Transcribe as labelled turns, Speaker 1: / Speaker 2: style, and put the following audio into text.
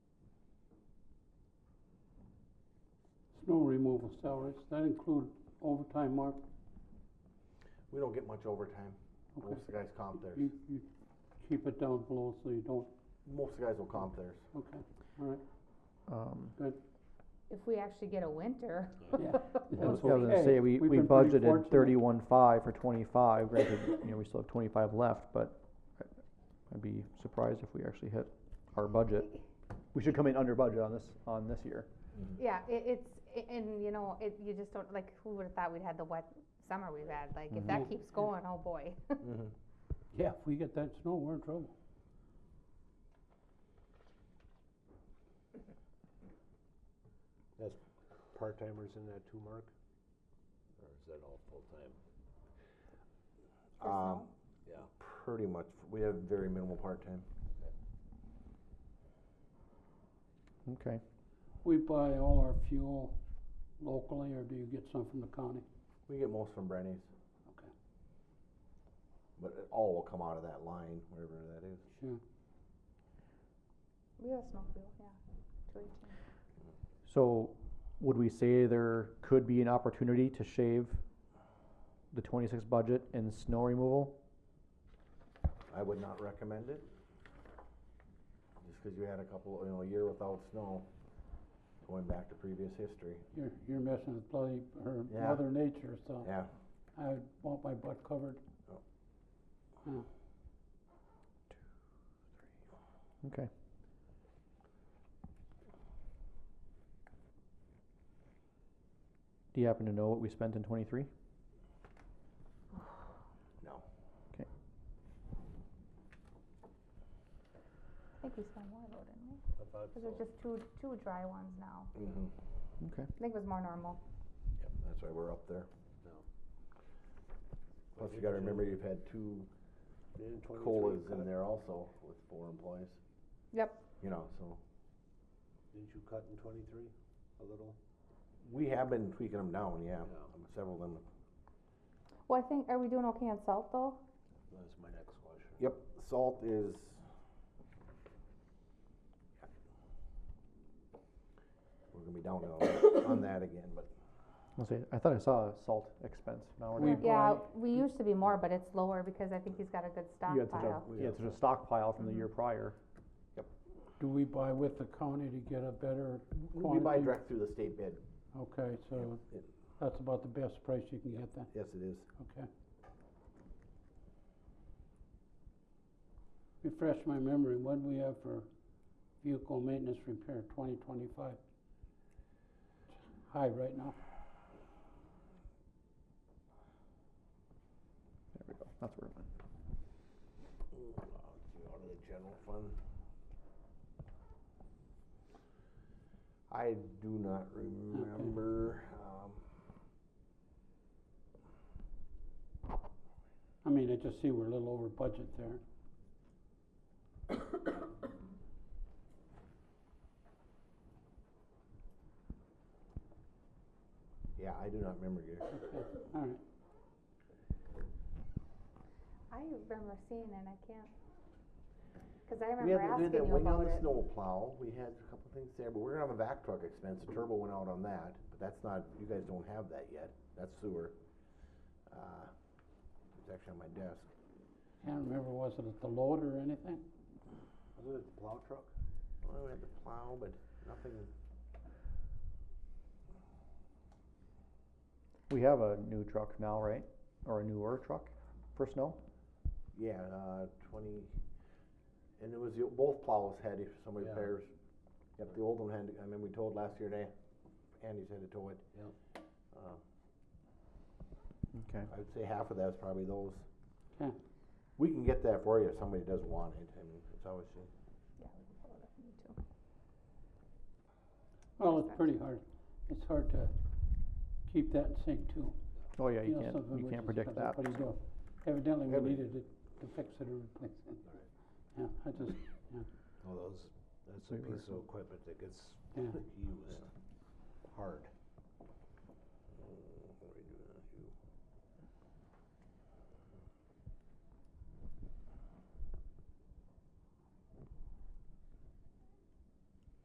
Speaker 1: snow removal salaries, that include overtime, Mark?
Speaker 2: We don't get much overtime.
Speaker 1: Okay.
Speaker 2: Most of the guys comp theirs.
Speaker 1: You, you keep it down below so you don't,
Speaker 2: Most of the guys will comp theirs.
Speaker 1: okay, all right,
Speaker 3: Um,
Speaker 1: good,
Speaker 4: If we actually get a winter,
Speaker 1: yeah.
Speaker 3: I was
Speaker 1: That's
Speaker 3: I was gonna
Speaker 1: okay.
Speaker 3: say, we,
Speaker 1: We've
Speaker 3: we
Speaker 1: been pretty
Speaker 3: budgeted
Speaker 1: fortunate.
Speaker 3: thirty-one five for twenty-five, granted, you know, we still have twenty-five left, but I- I'd be surprised if we actually hit our budget. We should come in under budget on this, on this year.
Speaker 4: yeah, it, it's, a- and you know, it, you just don't, like, who would've thought we'd had the wet summer we've had, like, if
Speaker 1: Mhm.
Speaker 4: that keeps going, oh boy.
Speaker 1: Mm-hmm. Yeah, if we get that snow, we're in trouble.
Speaker 2: Part timers in that too, Mark?
Speaker 5: Or is that all full-time?
Speaker 2: Um,
Speaker 5: Yeah.
Speaker 2: pretty much. We have very minimal part time.
Speaker 3: Okay,
Speaker 1: We buy all our fuel locally, or do you get some from the county?
Speaker 2: We get most from Brenny's.
Speaker 1: Okay.
Speaker 2: But it all will come out of that line, wherever that is.
Speaker 1: Sure.
Speaker 4: We have snow field, yeah, two eighteen.
Speaker 3: so would we say there could be an opportunity to shave the twenty-six budget in snow removal?
Speaker 2: I would not recommend it. Just because you had a couple, you know, a year without snow, going back to previous history.
Speaker 1: You're, you're messing with bloody, her
Speaker 2: Yeah.
Speaker 1: mother nature, so
Speaker 2: Yeah.
Speaker 1: I would want my butt covered.
Speaker 3: Okay. Do you happen to know what we spent in twenty-three?
Speaker 2: No.
Speaker 4: I think we spent more though, didn't we?
Speaker 5: I thought
Speaker 4: Cause there's just two, two dry ones now,
Speaker 2: Mm-hmm.
Speaker 3: Okay.
Speaker 4: I think it was more normal.
Speaker 2: Yep, that's why we're up there.
Speaker 5: No.
Speaker 2: Plus, you gotta remember you've had two colas in there also with four employees.
Speaker 4: Yep.
Speaker 2: You know, so,
Speaker 5: Didn't you cut in twenty-three a little?
Speaker 2: we have been tweaking them down, yeah,
Speaker 5: Yeah.
Speaker 2: several of them.
Speaker 4: Well, I think, are we doing okay on salt though?
Speaker 5: That's my next question.
Speaker 2: Yep, salt is. We're gonna be down on- on that again, but
Speaker 3: I'll say, I thought I saw a salt expense, now we're
Speaker 1: We
Speaker 3: not.
Speaker 4: Yeah,
Speaker 1: buy-
Speaker 4: we used to be more, but it's lower because I think he's got a good
Speaker 3: You had such
Speaker 4: stockpile.
Speaker 3: a, you had such a stockpile from the year prior.
Speaker 1: Do we buy with the county to get a better
Speaker 2: we buy
Speaker 1: quantity?
Speaker 2: direct through the state bid,
Speaker 1: Okay, so
Speaker 2: it-
Speaker 1: that's about the best price you can get then,
Speaker 2: yes, it is.
Speaker 1: okay. Refresh my memory, what do we have for vehicle maintenance repair twenty twenty-five? High right now,
Speaker 3: There we go, that's where it went.
Speaker 2: Uh, Out of the general fund. I do not remember, um,
Speaker 1: I mean, I just see we're a little over budget there.
Speaker 2: yeah, I do not remember your.
Speaker 1: All right,
Speaker 4: I remember seeing it, I can't, cause I
Speaker 2: We had, we
Speaker 4: remember asking
Speaker 2: had that
Speaker 4: you
Speaker 2: wing on
Speaker 4: about
Speaker 2: the
Speaker 4: it.
Speaker 2: snow plow, we had a couple things there, but we're gonna have a vac truck expense, the turbo went out on that, but that's not, you guys don't have that yet, that's sewer. Uh, It's actually on my desk.
Speaker 1: can't remember, was it at the load or anything?
Speaker 5: Wasn't it the plow truck?
Speaker 2: Well, we had the plow, but nothing,
Speaker 3: We have a new truck now, right? Or a newer truck for snow?
Speaker 2: yeah, uh, twenty, and it was, the- both plows had, if somebody
Speaker 5: Yeah.
Speaker 2: repairs. Yep, the old one had, I mean, we told last year, they, Andy's had to tow it.
Speaker 5: Yep.
Speaker 2: Uh,
Speaker 3: Okay.
Speaker 2: I would say half of that is probably those.
Speaker 1: Okay.
Speaker 2: We can get that for you if somebody does want it, I mean, it's always.
Speaker 4: Yeah, we can pull it up, me too.
Speaker 1: Well, it's
Speaker 4: Perfect.
Speaker 1: pretty hard, it's hard to keep that in sync too.
Speaker 3: Oh, yeah, you
Speaker 1: know,
Speaker 3: can't,
Speaker 1: something
Speaker 3: you
Speaker 1: which
Speaker 3: can't
Speaker 1: is
Speaker 3: predict
Speaker 1: because that's
Speaker 3: that.
Speaker 1: what he do. Evidently, we
Speaker 2: Every-
Speaker 1: needed it to fix it or replace it. Yeah, I just,
Speaker 5: Well, those, that's a
Speaker 3: We were-
Speaker 5: piece of equipment that gets
Speaker 1: Yeah.
Speaker 5: used hard.
Speaker 2: Mm,